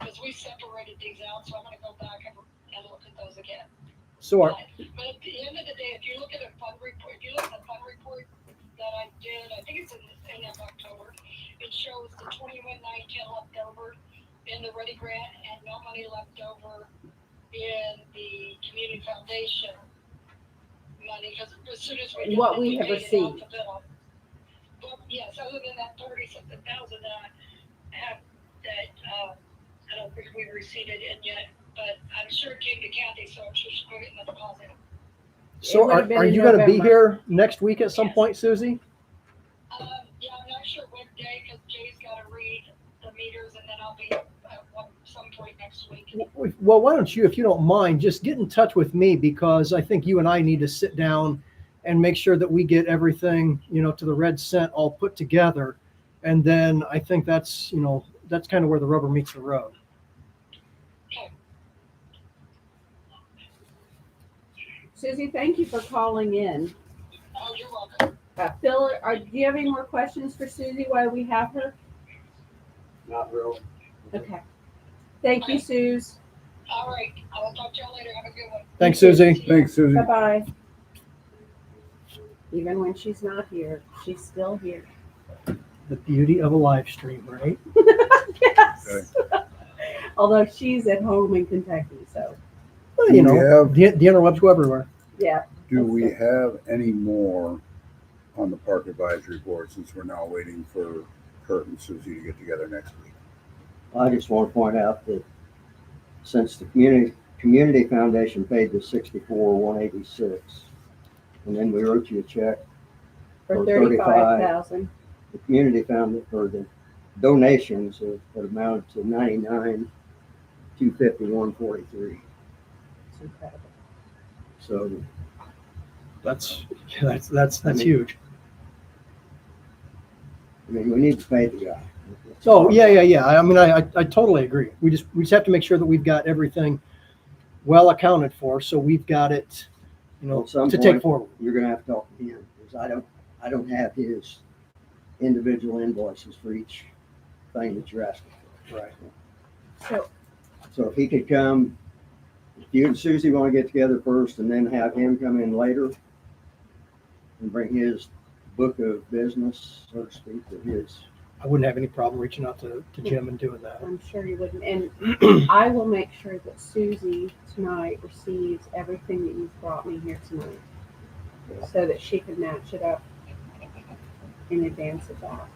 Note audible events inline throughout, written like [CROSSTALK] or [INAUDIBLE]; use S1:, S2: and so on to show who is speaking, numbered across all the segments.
S1: because we separated these out, so I'm gonna go back and, and look at those again.
S2: So are,
S1: But at the end of the day, if you look at a fund report, if you look at the fund report that I did, I think it's in, in October, it shows the twenty-one nine ten left over in the ready grant and no money left over in the community foundation money, because as soon as we. did
S3: What
S1: that,
S3: we have
S1: paid it off
S3: received.
S1: the bill. But yes, other than that thirty something thousand that I have, that, uh, I don't think we received it in yet, but I'm sure it came to Kathy, so I'm sure she's putting it in the deposit.
S2: so
S3: would've
S2: are,
S3: been
S2: are
S3: in
S2: you gonna be
S3: November.
S2: here next week at some point, Susie?
S1: Um, yeah, I'm not sure what day, because Jay's gotta read the meters, and then I'll be at one, some point next week.
S2: Well, why don't you, if you don't mind, just get in touch with me because I think you and I need to sit down and make sure that we get everything, you know, to the red cent all put together. And then I think that's, you know, that's kind of where the rubber meets the road.
S3: Susie, thank you for calling in.
S1: Oh, you're welcome.
S3: Uh, Phil, are, do you have any more questions for Susie while we have her?
S4: Not real.
S3: Okay. Thank you, Suze.
S1: All right, I will talk to y'all later. Have a good one.
S2: Thanks, Susie.
S1: See ya.
S5: Thanks, Susie.
S2: Mm-hmm.
S3: Bye-bye. Even when she's not here, she's still here.
S2: The beauty of a live stream, right?
S3: Yes. [LAUGHS] Although she's at home in Kentucky, so,
S2: Well, you know,
S5: Yeah.
S2: the, the interwebs go everywhere.
S3: yeah.
S5: Do we have any more on the park advisory board since we're now waiting for Kurt and Susie to get together next week?
S6: I just want to point out that since the community, community foundation paid the sixty-four, one eighty-six, and then we wrote you a check,
S3: For
S6: For
S3: thirty-five thousand.
S6: the community found or the donations have have amounted to ninety-nine, two fifty-one, forty-three.
S3: It's incredible.
S6: So
S2: That's, that's, that's, that's huge.
S6: I mean, we need to pay the guy.
S2: So, yeah, yeah, yeah. I mean, I, I, I totally agree. We just, we just have to make sure that we've got everything well accounted for. So we've got it, you know,
S6: At some
S2: to take
S6: point-
S2: forward.
S6: You're gonna have to talk to him because I don't, I don't have his individual invoices for each thing that you're asking for. Right.
S3: So,
S6: So if he could come, if you and Susie want to get together first and then have him come in later and bring his book of business, so to speak, of his.
S2: I wouldn't have any problem reaching out to, to Jim and doing that.
S3: I'm sure you wouldn't, and I will make sure that Susie tonight receives everything that you've brought me here tonight. So that she can match it up in advance of that.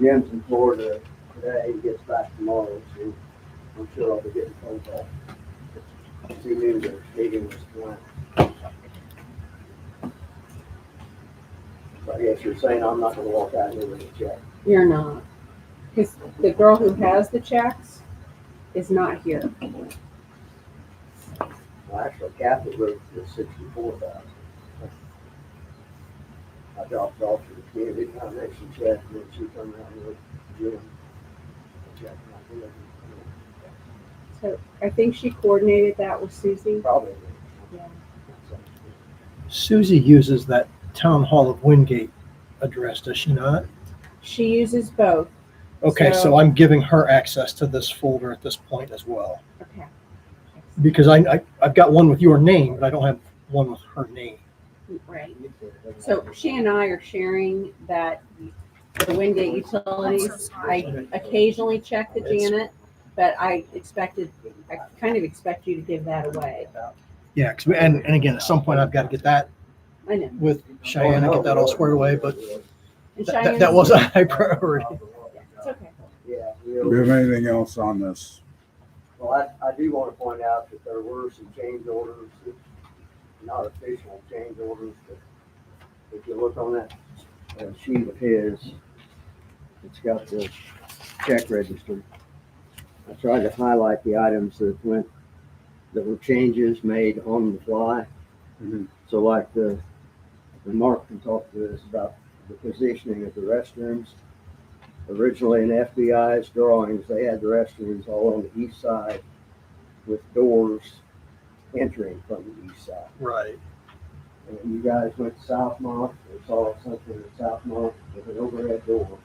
S6: Jim's in Florida today, he gets back tomorrow, so I'm sure I'll be getting a phone call. He knew the meeting was tonight. So I guess you're saying I'm not gonna walk out here with a check.
S3: You're not. Because the girl who has the checks is not here.
S6: Well, actually, Kathy wrote the sixty-four thousand. I dropped off to the community foundation check, and then she come out with Jim. Check, and I did it.
S3: So I think she coordinated that with Susie.
S6: Probably.
S3: Yeah.
S2: Susie uses that town hall of Wingate address, does she not?
S3: She uses both.
S2: Okay,
S3: So-
S2: so I'm giving her access to this folder at this point as well.
S3: Okay.
S2: Because I, I, I've got one with your name, but I don't have one with her name.
S3: Right. So she and I are sharing that the Wingate Utilities. I occasionally check the Janet, but I expected, I kind of expect you to give that away.
S2: Yeah, 'cause we- and, and again, at some point I've got to get that
S3: I know.
S2: with Cheyenne and get that all squared away, but
S3: And
S2: that- that,
S3: Cheyenne's-
S2: that was a high priority.
S3: It's okay.
S6: Yeah,
S5: Do we have anything else on this?
S6: well, I, I do want to point out that there were some change orders, not official change orders, but if you look on that uh, sheet of his, it's got the check register. I tried to highlight the items that went, that were changes made on the fly.
S5: Mhm.
S6: So like the, the Mark can talk to us about the positioning of the restrooms. Originally in FBI's drawings, they had the restrooms all on the east side with doors entering from the east side.
S2: Right.
S6: And you guys went to Southmont and saw something in Southmont with an overhead door.